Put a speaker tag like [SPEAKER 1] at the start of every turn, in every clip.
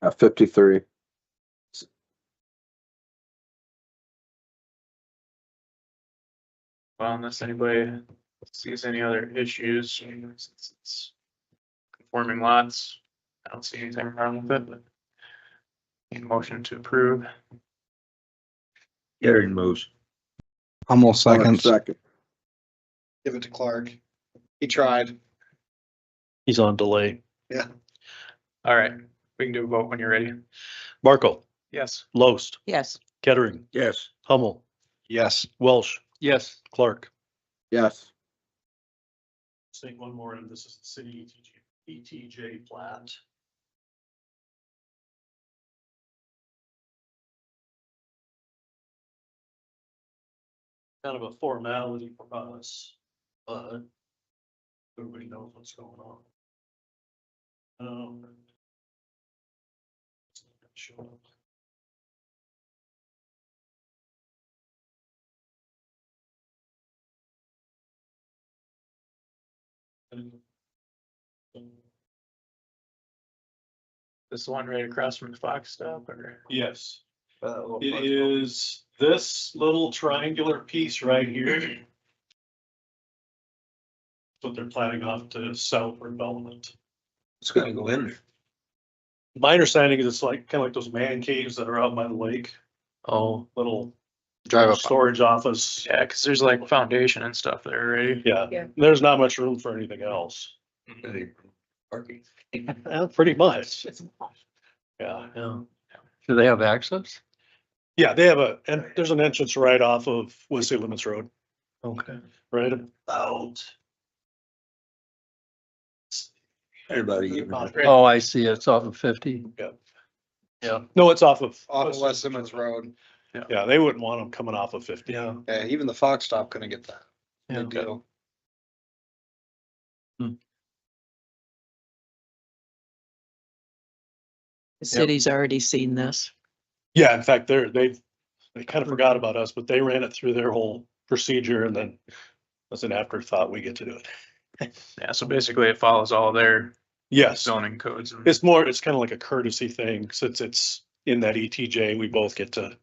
[SPEAKER 1] Uh, fifty-three.
[SPEAKER 2] Well, unless anybody sees any other issues, you know, since it's conforming lots, I don't see anything wrong with it, but need a motion to approve.
[SPEAKER 3] Gary moves.
[SPEAKER 4] Hummel seconds.
[SPEAKER 1] Second.
[SPEAKER 5] Give it to Clark. He tried.
[SPEAKER 6] He's on delay.
[SPEAKER 2] All right, we can do a vote when you're ready.
[SPEAKER 6] Barkle,
[SPEAKER 2] Yes.
[SPEAKER 6] Loest,
[SPEAKER 7] Yes,
[SPEAKER 6] Kettering,
[SPEAKER 3] Yes.
[SPEAKER 6] Hummel,
[SPEAKER 5] Yes.
[SPEAKER 6] Welsh,
[SPEAKER 2] Yes.
[SPEAKER 6] Clark.
[SPEAKER 1] Yes.
[SPEAKER 6] Say one more, and this is the city E ETJ, ETJ plat. Kind of a formality for us, but everybody knows what's going on. Um. Sure.
[SPEAKER 2] This is the one right across from the Fox stop or?
[SPEAKER 6] Yes,
[SPEAKER 5] Uh,
[SPEAKER 6] it is this little triangular piece right here. What they're planning off to sell for development.
[SPEAKER 3] It's gonna go in there.
[SPEAKER 6] My understanding is it's like, kind of like those man caves that are out by the lake,
[SPEAKER 2] Oh,
[SPEAKER 6] little
[SPEAKER 5] Drive up.
[SPEAKER 6] storage office.
[SPEAKER 2] yeah, cause there's like foundation and stuff there already.
[SPEAKER 6] Yeah,
[SPEAKER 7] Yeah.
[SPEAKER 6] there's not much room for anything else,
[SPEAKER 3] Parking.
[SPEAKER 6] Yeah, pretty much. Yeah.
[SPEAKER 2] Yeah.
[SPEAKER 8] Do they have access?
[SPEAKER 6] Yeah, they have a, and there's an entrance right off of Whistler Limits Road,
[SPEAKER 8] Okay.
[SPEAKER 6] right about.
[SPEAKER 3] Everybody.
[SPEAKER 8] Oh, I see. It's off of fifty.
[SPEAKER 6] Yeah, no, it's off of.
[SPEAKER 5] Off of West Simmons Road.
[SPEAKER 6] Yeah, they wouldn't want them coming off of fifty.
[SPEAKER 8] Yeah.
[SPEAKER 5] Yeah, even the Fox stop couldn't get that.
[SPEAKER 8] Yeah.
[SPEAKER 5] Good deal.
[SPEAKER 7] the city's already seen this.
[SPEAKER 6] Yeah, in fact, they're, they've, they kind of forgot about us, but they ran it through their whole procedure and then as an afterthought, we get to do it.
[SPEAKER 2] Yeah, so basically it follows all their
[SPEAKER 6] Yes,
[SPEAKER 2] zoning codes. and-
[SPEAKER 6] it's more, it's kind of like a courtesy thing since it's in that ETJ, we both get to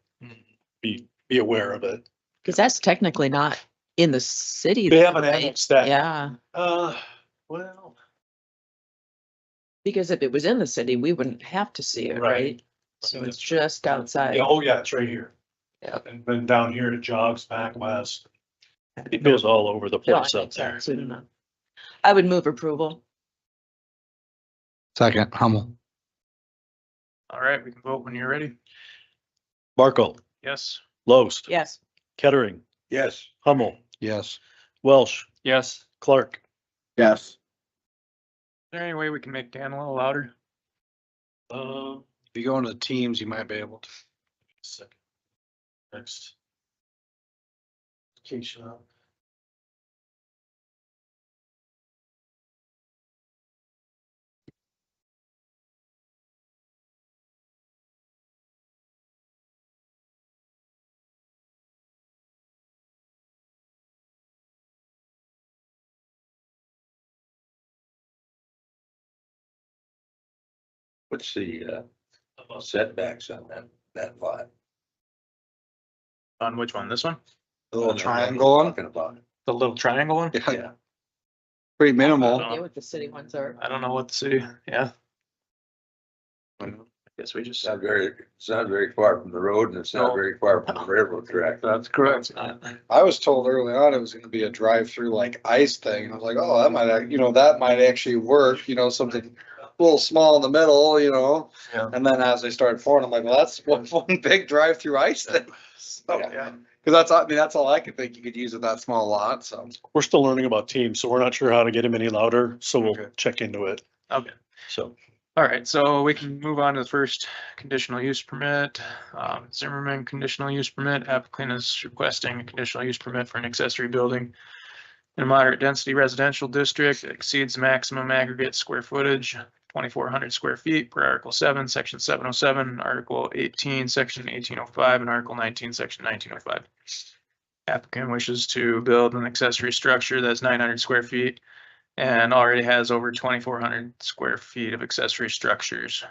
[SPEAKER 6] be, be aware of it.
[SPEAKER 7] Cause that's technically not in the city.
[SPEAKER 6] They haven't
[SPEAKER 7] right?
[SPEAKER 6] annexed that.
[SPEAKER 7] Yeah,
[SPEAKER 6] Uh, well,
[SPEAKER 7] because if it was in the city, we wouldn't have to see it,
[SPEAKER 6] Right.
[SPEAKER 7] right? So
[SPEAKER 6] That's
[SPEAKER 7] it's just outside.
[SPEAKER 6] yeah, oh yeah, it's right here.
[SPEAKER 7] Yep.
[SPEAKER 6] And then down here it jogs back west. It goes all over the
[SPEAKER 7] No, I
[SPEAKER 6] place
[SPEAKER 7] think
[SPEAKER 6] up
[SPEAKER 7] so,
[SPEAKER 6] there.
[SPEAKER 7] soon enough. I would move approval.
[SPEAKER 4] Second, Hummel.
[SPEAKER 2] All right, we can vote when you're ready.
[SPEAKER 6] Barkle,
[SPEAKER 2] Yes.
[SPEAKER 6] Loest,
[SPEAKER 7] Yes,
[SPEAKER 6] Kettering,
[SPEAKER 3] Yes.
[SPEAKER 6] Hummel,
[SPEAKER 4] Yes.
[SPEAKER 6] Welsh,
[SPEAKER 8] Yes.
[SPEAKER 6] Clark.
[SPEAKER 1] Yes.
[SPEAKER 2] Is there any way we can make Dan a little louder?
[SPEAKER 6] Um,
[SPEAKER 5] If you go into the teams, you might be able to.
[SPEAKER 6] second. Next. Application up.
[SPEAKER 3] What's the uh, setbacks on that, that lot?
[SPEAKER 2] On which one? This one?
[SPEAKER 5] The little triangle one?
[SPEAKER 3] Talking about.
[SPEAKER 2] The little triangle one?
[SPEAKER 5] Yeah,
[SPEAKER 3] Yeah.
[SPEAKER 5] pretty
[SPEAKER 2] I
[SPEAKER 6] Uh-huh.
[SPEAKER 5] minimal.
[SPEAKER 2] don't-
[SPEAKER 7] yeah, what the city ones are.
[SPEAKER 2] I don't know what the city, yeah,
[SPEAKER 3] It's
[SPEAKER 2] I guess we just.
[SPEAKER 3] Mm-hmm. not very, it's not very far from the road and it's not
[SPEAKER 2] No.
[SPEAKER 3] very far from the railroad track.
[SPEAKER 2] That's correct. Well,
[SPEAKER 5] I was told early on it was gonna be a drive-through like ice thing. I was like, oh, that might, ac- you know, that might actually work, you know, something a little small in the middle, you know?
[SPEAKER 8] Yeah.
[SPEAKER 5] And then as they started pouring, I'm like, well, that's one, one big drive-through ice thing. So,
[SPEAKER 2] Oh, yeah.
[SPEAKER 5] Cause that's, I mean, that's all I could think you could use with that small lot, so.
[SPEAKER 6] We're still learning about teams, so we're not sure how to get him any louder, so we'll check into it.
[SPEAKER 2] Okay.
[SPEAKER 6] So,
[SPEAKER 2] All right, so we can move on to the first conditional use permit. Um, Zimmerman conditional use permit applicant is requesting a conditional use permit for an accessory building in a moderate density residential district that exceeds maximum aggregate square footage, twenty-four hundred square feet per Article seven, Section seven oh seven, Article eighteen, Section eighteen oh five, and Article nineteen, Section nineteen oh five. Applicant wishes to build an accessory structure that's nine hundred square feet and already has over twenty-four hundred square feet of accessory structures.